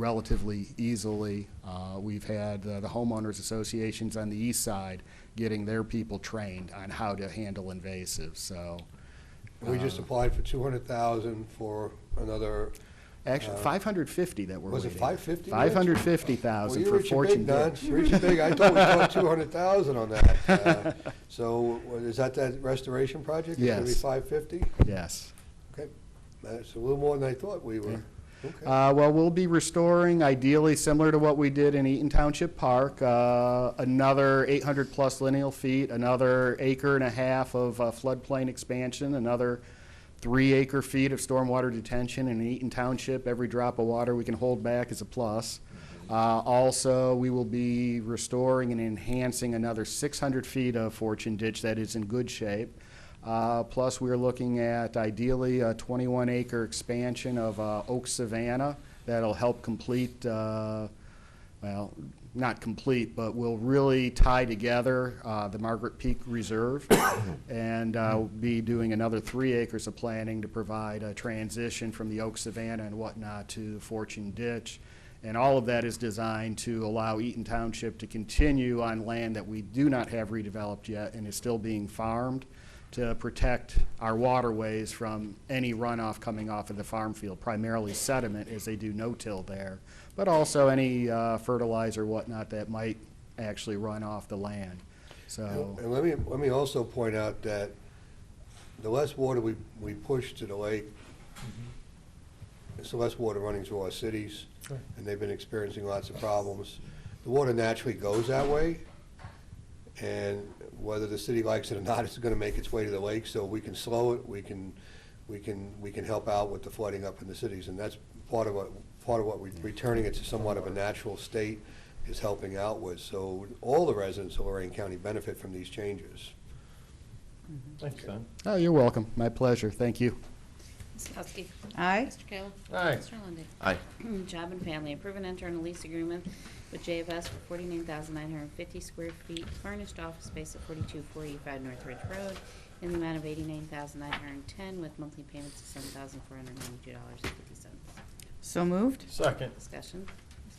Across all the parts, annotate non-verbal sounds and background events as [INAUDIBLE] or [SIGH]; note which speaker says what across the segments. Speaker 1: relatively easily. Uh, We've had uh, the homeowners associations on the east side getting their people trained on how to handle invasives, so.
Speaker 2: We just applied for two hundred thousand for another,
Speaker 1: Actually,
Speaker 2: Uh,
Speaker 1: 550 that we're
Speaker 2: was it
Speaker 1: waiting.
Speaker 2: five fifty?
Speaker 1: 550,000 for Fortune
Speaker 2: Well,
Speaker 1: Ditch.
Speaker 2: you rich and big, Don, rich and big, I thought we
Speaker 1: [LAUGHS]
Speaker 2: thought two hundred thousand on that. Uh, So, what- is that that restoration project? It's
Speaker 1: Yes.
Speaker 2: gonna be five fifty?
Speaker 1: Yes.
Speaker 2: Okay, that's a little more than I thought we were. Okay,
Speaker 1: Uh, Well, we'll be restoring, ideally similar to what we did in Eaton Township Park, uh, another 800-plus lineal feet, another acre and a half of uh, floodplain expansion, another three acre feet of stormwater detention in Eaton Township. Every drop of water we can hold back is a plus. Uh, Also, we will be restoring and enhancing another 600 feet of Fortune Ditch that is in good shape. Uh, Plus, we're looking at ideally a 21-acre expansion of uh, Oak Savannah that'll help complete, uh, well, not complete, but will really tie together uh, the Margaret Peak Reserve. [COUGHS] And uh, we'll be doing another three acres of planning to provide a transition from the Oak Savannah and whatnot to Fortune Ditch. And all of that is designed to allow Eaton Township to continue on land that we do not have redeveloped yet and is still being farmed to protect our waterways from any runoff coming off of the farm field, primarily sediment, as they do no-till there, but also any uh, fertilizer, whatnot, that might actually run off the land. So,
Speaker 2: and let me, let me also point out that the less water we, we push to the lake,
Speaker 1: Mm-hmm.
Speaker 2: it's the less water running through our cities, and they've been experiencing lots of problems. The water naturally goes that way, and whether the city likes it or not, it's gonna make its way to the lake, so we can slow it, we can, we can, we can help out with the flooding up in the cities, and that's part of what, part of what we, returning it to somewhat of a natural state is helping out with, so all the residents of Lorraine County benefit from these changes.
Speaker 3: Thanks, Don.
Speaker 1: oh, you're welcome. My pleasure. Thank you.
Speaker 4: Ms. Kowski.
Speaker 5: Aye.
Speaker 4: Mr. Kayla.
Speaker 3: Aye.
Speaker 4: Mr. Lundey.
Speaker 6: Aye.
Speaker 4: [CLEARS THROAT] Job and Family, approve and enter in a lease agreement with JFS for forty-nine thousand nine hundred and fifty square feet furnished office space at forty-two forty-five North Ridge Road in the amount of eighty-nine thousand nine hundred and ten with monthly payments of seven thousand four hundred and ninety-two dollars and fifty cents.
Speaker 5: So moved.
Speaker 3: Second.
Speaker 4: Discussion.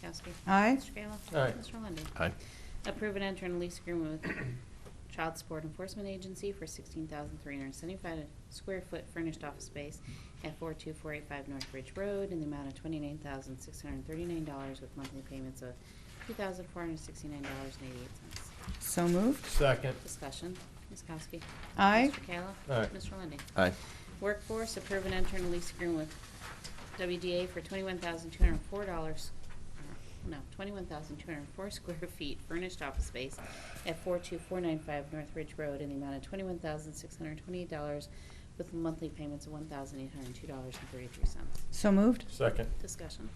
Speaker 4: Ms. Kowski.
Speaker 5: Aye.
Speaker 4: Mr. Kayla.
Speaker 3: Aye.
Speaker 4: Mr. Lundey.
Speaker 6: Aye.
Speaker 4: Approve and enter in a lease agreement with [COUGHS] Child Support Enforcement Agency for sixteen thousand three hundred and seventy-five square foot furnished office space at four two four eight five North Ridge Road in the amount of twenty-nine thousand six hundred and thirty-nine dollars with monthly payments of two thousand four hundred and sixty-nine dollars and eighty-eight cents.
Speaker 5: So moved.
Speaker 3: Second.
Speaker 4: Discussion, Ms. Kowski.
Speaker 5: Aye.
Speaker 4: Mr. Kayla.
Speaker 3: Aye.
Speaker 4: Mr. Lundey.
Speaker 6: Aye.
Speaker 4: Workforce, approve and enter in a lease agreement with WDA for twenty-one thousand two hundred and four dollars, uh, no, twenty-one thousand two hundred and four [LAUGHS] square feet furnished office space at four-two-four-nine-five North Ridge Road in the amount of twenty-one thousand six hundred and twenty-eight dollars with monthly payments of one thousand eight hundred and two dollars and thirty-three cents.
Speaker 5: So moved.
Speaker 3: Second.
Speaker 4: Discussion.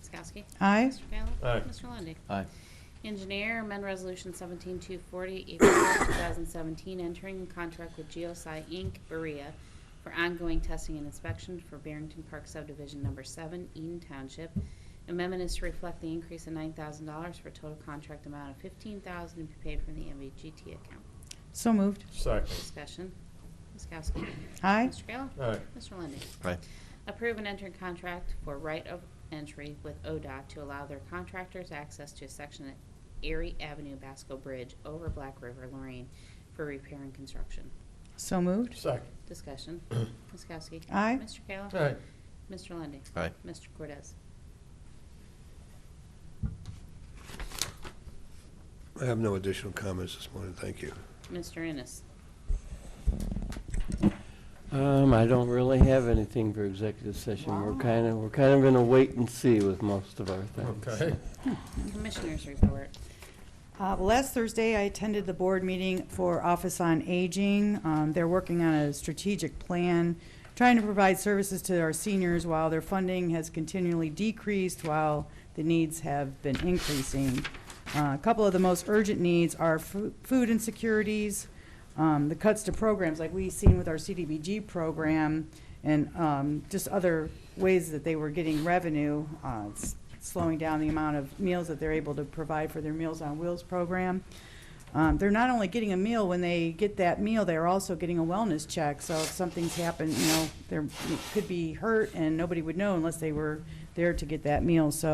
Speaker 4: Ms. Kowski?
Speaker 5: Aye.
Speaker 4: Mr. Kayla?
Speaker 3: Aye.
Speaker 4: Mr. Lundey?
Speaker 6: Aye.
Speaker 4: Engineer, amend resolution seventeen two forty, April two thousand seventeen, entering contract with GeoSci Inc., Berea, for ongoing testing and inspection for Barrington Park subdivision number seven, Eden Township. Amendment is to reflect the increase of nine thousand dollars for a total contract amount of fifteen thousand dollars to be paid from the MVGT account.
Speaker 5: So moved.
Speaker 3: Second.
Speaker 4: Discussion, Ms. Kowski.
Speaker 5: Aye.
Speaker 4: Mr. Kayla.
Speaker 3: Aye.
Speaker 4: Mr. Lundey.
Speaker 6: Aye.
Speaker 4: Approve and enter contract for right of entry with ODOT to allow their contractors access to a section at Erie Avenue Basco Bridge over Black River, Lorraine, for repair and construction.
Speaker 5: So moved.
Speaker 3: Second.
Speaker 6: [CLEARS THROAT]
Speaker 4: Discussion. Ms. Kowski.
Speaker 5: Aye.
Speaker 4: Mr. Kayla.
Speaker 3: Aye.
Speaker 4: Mr. Lundy,
Speaker 6: Aye.
Speaker 4: Mr. Cordez.
Speaker 2: I have no additional comments this morning, thank you.
Speaker 4: Mr. Ennis.
Speaker 7: Um, I don't really have anything for executive session. We're
Speaker 5: Wow.
Speaker 7: kind of, we're kind of in a wait and see with most of our things.
Speaker 3: Okay.
Speaker 4: Commissioners report.
Speaker 5: Uh, Last Thursday, I attended the board meeting for Office on Aging. Um, They're working on a strategic plan, trying to provide services to our seniors while their funding has continually decreased, while the needs have been increasing. Uh, A couple of the most urgent needs are fu- food insecurities, um, the cuts to programs, like we seen with our CDBG program, and um, just other ways that they were getting revenue, uh, s- slowing down the amount of meals that they're able to provide for their Meals on Wheels program. Um, They're not only getting a meal, when they get that meal, they're also getting a wellness check. So if something's happened, you know, they could be hurt, and nobody would know unless they were there to get that meal. So